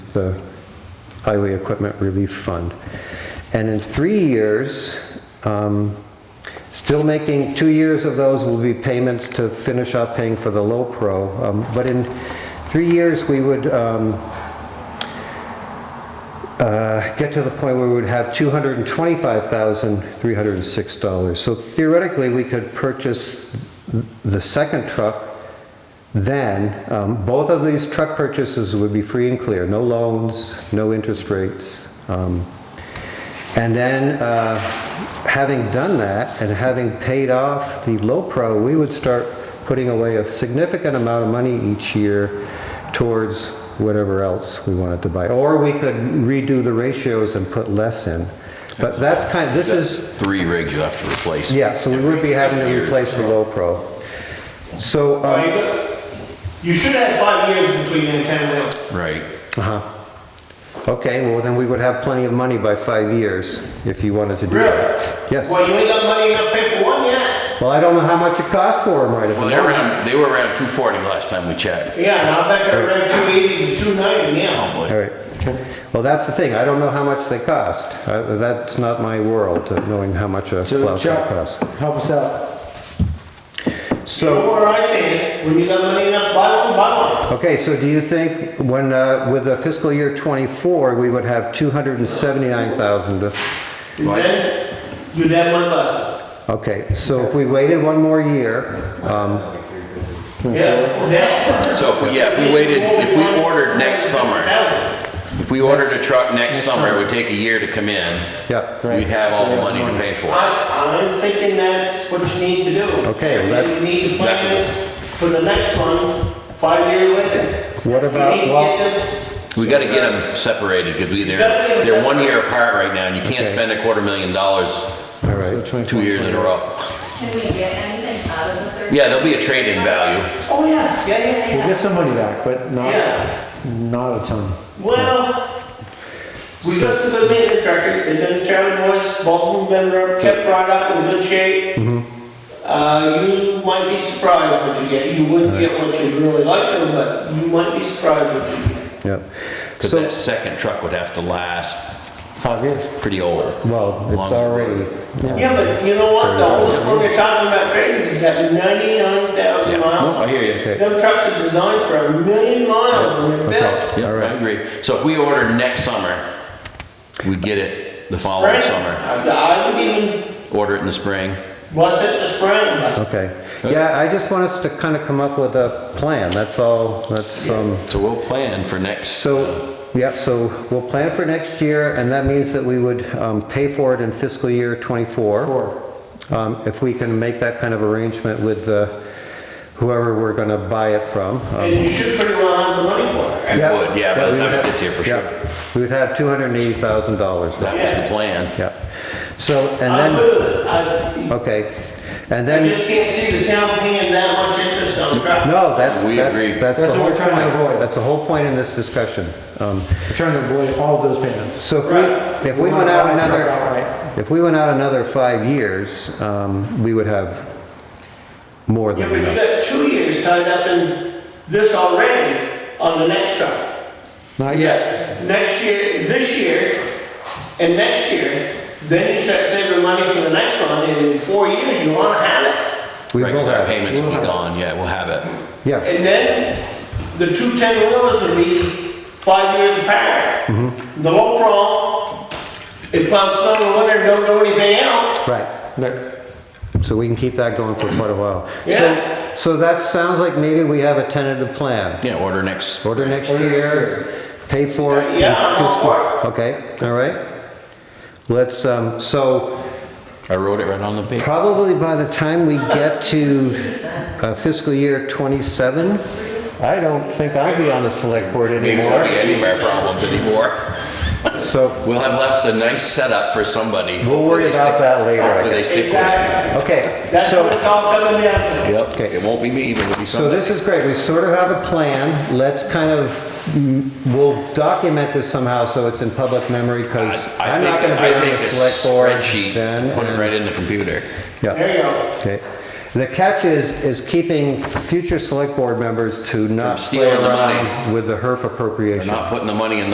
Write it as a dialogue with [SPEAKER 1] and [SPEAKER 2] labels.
[SPEAKER 1] the Highway Equipment Relief Fund. And in three years, um, still making, two years of those will be payments to finish up paying for the low pro. Um, But in three years, we would um, uh, get to the point where we would have $225,306. So theoretically, we could purchase the second truck then. Um, Both of these truck purchases would be free and clear, no loans, no interest rates. Um, And then, uh, having done that and having paid off the low pro, we would start putting away a significant amount of money each year towards whatever else we wanted to buy. Or we could redo the ratios and put less in. But that's kind, this is,
[SPEAKER 2] Three rigs you have to replace.
[SPEAKER 1] yeah, so we would be having to replace the low pro. So,
[SPEAKER 3] Well,
[SPEAKER 1] um,
[SPEAKER 3] you got- You should have five years between them ten wheels.
[SPEAKER 2] Right.
[SPEAKER 1] uh-huh. okay, well, then we would have plenty of money by five years if you wanted to do that. Yes.
[SPEAKER 3] Well, you ain't got money enough to pay for one yet.
[SPEAKER 1] Well, I don't know how much it costs for them right at the
[SPEAKER 2] Well, they were
[SPEAKER 1] moment.
[SPEAKER 2] around, they were around 240 last time we checked.
[SPEAKER 3] Yeah, now back at around two eighty to two ninety now.
[SPEAKER 1] All right. Well, that's the thing, I don't know how much they cost. Uh, That's not my world, uh, knowing how much a
[SPEAKER 4] So
[SPEAKER 1] plow truck
[SPEAKER 4] Chuck,
[SPEAKER 1] costs.
[SPEAKER 4] help us out.
[SPEAKER 3] You
[SPEAKER 1] So,
[SPEAKER 3] know where I stand, when you got money enough, to buy one, buy one.
[SPEAKER 1] okay, so do you think when, uh, with the fiscal year '24, we would have 279,000 to
[SPEAKER 3] And then you'd have one less.
[SPEAKER 1] Okay, so if we waited one more year, um,
[SPEAKER 3] Yeah, yeah.
[SPEAKER 2] So, if we- yeah, if we waited, if we ordered next summer, if we ordered a truck next summer, it would take a year to come in.
[SPEAKER 1] yeah,
[SPEAKER 2] We'd have all the money to pay for it.
[SPEAKER 3] I, I'm thinking that's what you need to do.
[SPEAKER 1] Okay, well, that's-
[SPEAKER 3] You need to plan
[SPEAKER 2] That's-
[SPEAKER 3] for the next one, five years later.
[SPEAKER 1] What
[SPEAKER 3] You
[SPEAKER 1] about
[SPEAKER 3] need to
[SPEAKER 1] lot-
[SPEAKER 3] get them-
[SPEAKER 2] We gotta get them separated, because we, they're, they're one year apart right now, and you can't
[SPEAKER 1] Okay.
[SPEAKER 2] spend a quarter million dollars
[SPEAKER 1] all
[SPEAKER 4] So
[SPEAKER 1] right.
[SPEAKER 4] 24,
[SPEAKER 2] two years in a row.
[SPEAKER 5] Can we get anything out of the third?
[SPEAKER 2] Yeah, there'll be a trade-in value.
[SPEAKER 3] Oh, yeah, yeah, yeah, yeah.
[SPEAKER 4] We'll get some money back, but not,
[SPEAKER 3] Yeah,
[SPEAKER 4] not a ton.
[SPEAKER 3] well, we got some good maintenance records, they've been Chatham boys, both of them been rub- kept brought up in good shape.
[SPEAKER 2] Mm-hmm.
[SPEAKER 3] Uh, you might be surprised what you get, you wouldn't get what you really like them, but you might be surprised what you get.
[SPEAKER 1] Yep.
[SPEAKER 2] Because
[SPEAKER 1] So,
[SPEAKER 2] that second truck would have to last
[SPEAKER 4] Five years.
[SPEAKER 2] pretty old.
[SPEAKER 1] well,
[SPEAKER 2] Long
[SPEAKER 1] it's
[SPEAKER 2] as it
[SPEAKER 1] already,
[SPEAKER 2] rotates.
[SPEAKER 3] Yeah, but you know what, the oldest one they're talking about trading is that
[SPEAKER 2] Yeah,
[SPEAKER 3] ninety-nine thousand
[SPEAKER 2] no, I
[SPEAKER 3] miles.
[SPEAKER 2] hear you.
[SPEAKER 1] okay,
[SPEAKER 3] Them trucks are designed for a million miles when they're built.
[SPEAKER 2] Yeah,
[SPEAKER 1] all
[SPEAKER 2] I
[SPEAKER 1] right.
[SPEAKER 2] agree. So if we order next summer, we'd get it the following
[SPEAKER 3] Spring,
[SPEAKER 2] summer.
[SPEAKER 3] I I would even,
[SPEAKER 2] Order it in the spring.
[SPEAKER 3] was it the spring, but
[SPEAKER 1] Okay. Yeah, I just want us to kind of come up with a plan, that's all, that's, um,
[SPEAKER 2] So we'll plan for next,
[SPEAKER 1] so, yeah, so we'll plan for next year, and that means that we would um, pay for it in fiscal year '24.
[SPEAKER 4] Four.
[SPEAKER 1] um, If we can make that kind of arrangement with uh, whoever we're going to buy it from.
[SPEAKER 2] Uh-huh.
[SPEAKER 1] Um,
[SPEAKER 3] And you should pretty well have the money for it.
[SPEAKER 2] I would, yeah, by
[SPEAKER 1] we would
[SPEAKER 2] the time it
[SPEAKER 1] have-
[SPEAKER 2] gets here for
[SPEAKER 1] yeah.
[SPEAKER 2] sure.
[SPEAKER 1] We would have $280,000.
[SPEAKER 2] That was the plan.
[SPEAKER 1] Yeah. So, and
[SPEAKER 3] I'm
[SPEAKER 1] then,
[SPEAKER 3] good with it.
[SPEAKER 2] Uh,
[SPEAKER 3] I,
[SPEAKER 1] okay, and
[SPEAKER 3] I
[SPEAKER 1] then,
[SPEAKER 3] just can't see the town paying that much interest on the truck.
[SPEAKER 1] no, that's,
[SPEAKER 2] We agree.
[SPEAKER 1] that's, that's the
[SPEAKER 4] That's what
[SPEAKER 1] whole
[SPEAKER 4] we're trying to
[SPEAKER 1] point.
[SPEAKER 4] avoid.
[SPEAKER 1] That's the whole point in this discussion. Um,
[SPEAKER 4] We're trying to avoid all of those payments.
[SPEAKER 1] So if
[SPEAKER 3] Right.
[SPEAKER 1] we, if we
[SPEAKER 4] wanna
[SPEAKER 1] went out
[SPEAKER 4] buy a truck
[SPEAKER 1] another,
[SPEAKER 4] outright.
[SPEAKER 1] if we went out another five years, um, we would have more
[SPEAKER 3] Yeah,
[SPEAKER 1] than
[SPEAKER 3] but you
[SPEAKER 1] enough.
[SPEAKER 3] got two years tied up in this already on the next truck.
[SPEAKER 4] Not
[SPEAKER 3] You
[SPEAKER 4] yet.
[SPEAKER 3] got Next year, this year, and next year, then you start saving money for the next one, and in four years, you wanna have it.
[SPEAKER 1] We
[SPEAKER 2] Right,
[SPEAKER 1] will
[SPEAKER 2] 'cause our
[SPEAKER 1] have,
[SPEAKER 2] payments will be
[SPEAKER 4] We'll have it.
[SPEAKER 2] gone, yeah, we'll have it.
[SPEAKER 1] yeah,
[SPEAKER 3] And then the two ten wheelers would be five years apart.
[SPEAKER 1] Mm-hmm.
[SPEAKER 3] The low pro, it plows snow in winter, don't do anything else.
[SPEAKER 1] right.
[SPEAKER 4] There-
[SPEAKER 1] So we can keep that going for quite a while.
[SPEAKER 3] Yeah.
[SPEAKER 1] So, so that sounds like maybe we have a tentative plan.
[SPEAKER 2] Yeah, order next,
[SPEAKER 1] Order next year, pay for it. in
[SPEAKER 3] Yeah, I'm all
[SPEAKER 1] fiscal-
[SPEAKER 3] for
[SPEAKER 1] Okay, all right. Let's, um, so
[SPEAKER 2] I wrote it right on the paper.
[SPEAKER 1] Probably by the time we get to uh, fiscal year '27, I don't think I'll be on the select board
[SPEAKER 2] Maybe won't be
[SPEAKER 1] anymore.
[SPEAKER 2] any of our problems anymore.
[SPEAKER 1] So
[SPEAKER 2] We'll have left a nice setup for somebody.
[SPEAKER 1] We'll worry
[SPEAKER 2] Hopefully they
[SPEAKER 1] about
[SPEAKER 2] stick-
[SPEAKER 1] that later, I
[SPEAKER 2] Hopefully they
[SPEAKER 1] guess.
[SPEAKER 2] stick with it.
[SPEAKER 3] Exactly.
[SPEAKER 1] Okay,
[SPEAKER 3] That's
[SPEAKER 1] so,
[SPEAKER 3] what it's all coming down to.
[SPEAKER 2] Yep,
[SPEAKER 1] Okay.
[SPEAKER 2] it won't be me, but it'll be
[SPEAKER 1] so
[SPEAKER 2] somebody.
[SPEAKER 1] this is great. We sort of have a plan. Let's kind of, mm, we'll document this somehow so it's in public memory because
[SPEAKER 2] I
[SPEAKER 1] I'm not going
[SPEAKER 2] think-
[SPEAKER 1] to be
[SPEAKER 2] I
[SPEAKER 1] on the
[SPEAKER 2] think a
[SPEAKER 1] select board
[SPEAKER 2] spreadsheet,
[SPEAKER 1] then.
[SPEAKER 2] Put it
[SPEAKER 1] and-
[SPEAKER 2] right in the computer.
[SPEAKER 1] yeah.
[SPEAKER 3] There you go.
[SPEAKER 1] Okay. The catch is, is keeping future select board members to not play
[SPEAKER 2] stealing the money.
[SPEAKER 1] around with the HERF
[SPEAKER 2] They're
[SPEAKER 1] appropriation.
[SPEAKER 2] not putting the money in the